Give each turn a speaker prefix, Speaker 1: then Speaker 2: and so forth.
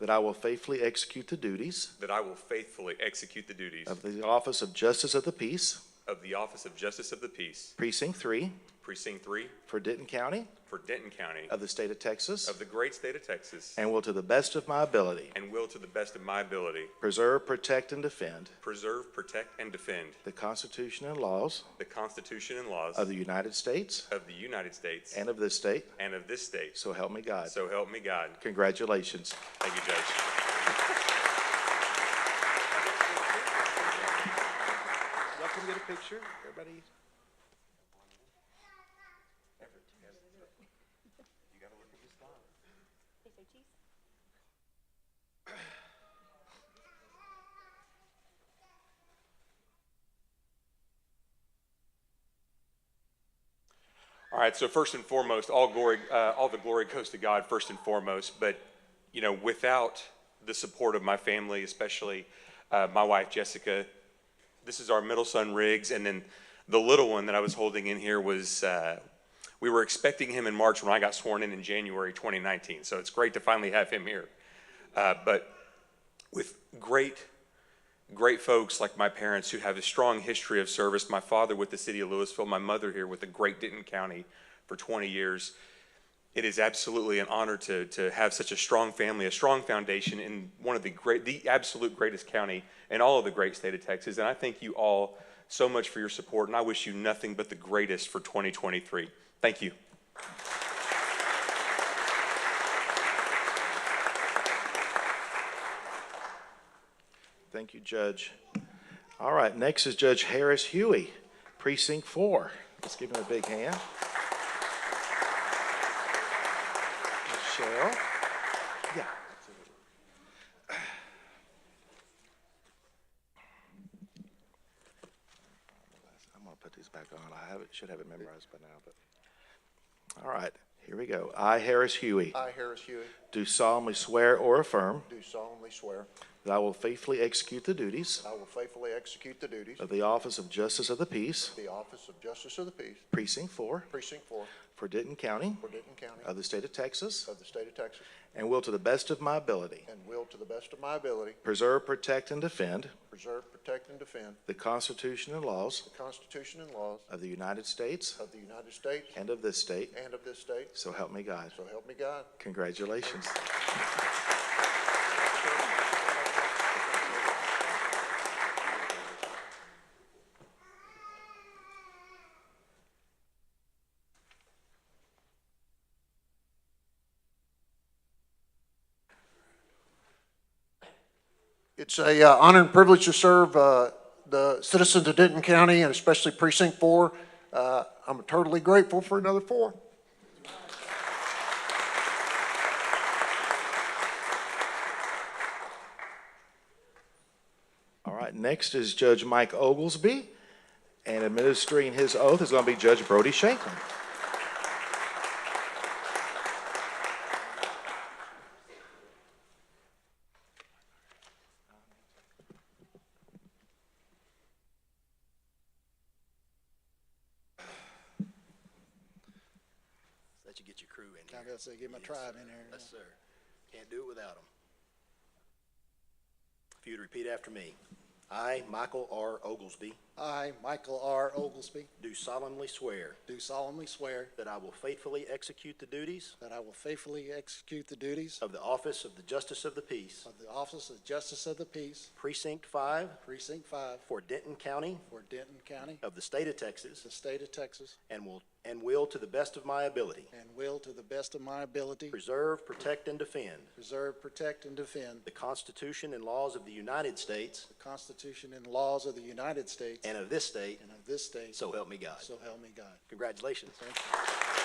Speaker 1: that I will faithfully execute the duties
Speaker 2: that I will faithfully execute the duties
Speaker 1: of the Office of Justice of the Peace,
Speaker 2: of the Office of Justice of the Peace,
Speaker 1: Precinct 3,
Speaker 2: Precinct 3
Speaker 1: for Denton County
Speaker 2: for Denton County
Speaker 1: of the State of Texas,
Speaker 2: of the great state of Texas,
Speaker 1: and will to the best of my ability
Speaker 2: and will to the best of my ability
Speaker 1: preserve, protect, and defend
Speaker 2: preserve, protect, and defend
Speaker 1: the Constitution and laws
Speaker 2: the Constitution and laws
Speaker 1: of the United States
Speaker 2: of the United States
Speaker 1: and of this state,
Speaker 2: and of this state.
Speaker 1: so help me God.
Speaker 2: So help me God.
Speaker 1: Congratulations.
Speaker 2: Thank you, Judge.
Speaker 3: Y'all come get a picture, everybody.
Speaker 2: All right, so first and foremost, all glory, uh, all the glory goes to God first and foremost. But you know, without the support of my family, especially uh, my wife Jessica, this is our middle son Riggs, and then the little one that I was holding in here was. Uh, we were expecting him in March when I got sworn in in January 2019. So it's great to finally have him here. Uh, but with great great folks like my parents who have a strong history of service. My father with the city of Louisville, my mother here with the great Denton County for 20 years. It is absolutely an honor to, to have such a strong family, a strong foundation in one of the great, the absolute greatest county in all of the great state of Texas. And I thank you all so much for your support, and I wish you nothing but the greatest for 2023. Thank you.
Speaker 1: Thank you, Judge. All right, next is Judge Harris Huey, Precinct 4. Let's give him a big hand. Michelle? Yeah. I'm going to put these back on. I have it, should have it memorized by now, but. All right, here we go. I, Harris Huey,
Speaker 4: I, Harris Huey,
Speaker 1: do solemnly swear or affirm
Speaker 4: do solemnly swear
Speaker 1: that I will faithfully execute the duties
Speaker 4: I will faithfully execute the duties
Speaker 1: of
Speaker 4: of
Speaker 1: the Office of Justice of the Peace,
Speaker 4: the Office of Justice of the Peace,
Speaker 1: Precinct 4,
Speaker 4: Precinct 4,
Speaker 1: for Denton County
Speaker 4: for Denton County,
Speaker 1: of the State of Texas,
Speaker 4: of the State of Texas,
Speaker 1: and will to the best of my ability
Speaker 4: and will to the best of my ability
Speaker 1: preserve, protect, and defend
Speaker 4: preserve, protect, and defend
Speaker 1: the Constitution and laws
Speaker 4: the Constitution and laws
Speaker 1: of the United States
Speaker 4: of the United States
Speaker 1: and of this state,
Speaker 4: and of this state.
Speaker 1: so help me God.
Speaker 4: So help me God.
Speaker 1: Congratulations.
Speaker 4: It's a uh, honor and privilege to serve uh, the citizens of Denton County and especially Precinct 4. Uh, I'm totally grateful for another four.
Speaker 1: All right, next is Judge Mike Oglesby, and administering his oath is going to be Judge Brody Shanklin.
Speaker 5: Let you get your crew in
Speaker 6: I
Speaker 5: here.
Speaker 6: gotta say, get my
Speaker 5: Yes,
Speaker 6: tribe
Speaker 5: sir.
Speaker 6: in there.
Speaker 5: Yes, sir. Can't do it without them. If you'd repeat after me. I, Michael R. Oglesby,
Speaker 6: I, Michael R. Oglesby,
Speaker 5: do solemnly swear
Speaker 6: do solemnly swear
Speaker 5: that I will faithfully execute the duties
Speaker 6: that I will faithfully execute the duties
Speaker 5: of the office of the Justice of the Peace,
Speaker 6: of the Office of Justice of the Peace,
Speaker 5: Precinct Five
Speaker 6: Precinct Five,
Speaker 5: for Denton County
Speaker 6: for Denton County,
Speaker 5: of the state of Texas,
Speaker 6: the state of Texas,
Speaker 5: and will, and will to the best of my ability
Speaker 6: and will, to the best of my ability,
Speaker 5: preserve, protect, and defend
Speaker 6: preserve, protect, and defend
Speaker 5: the Constitution and laws of the United States
Speaker 6: the Constitution and laws of the United States
Speaker 5: and of this state,
Speaker 6: and of this state.
Speaker 5: so help me God.
Speaker 6: So help me God.
Speaker 5: Congratulations.
Speaker 6: Thank you.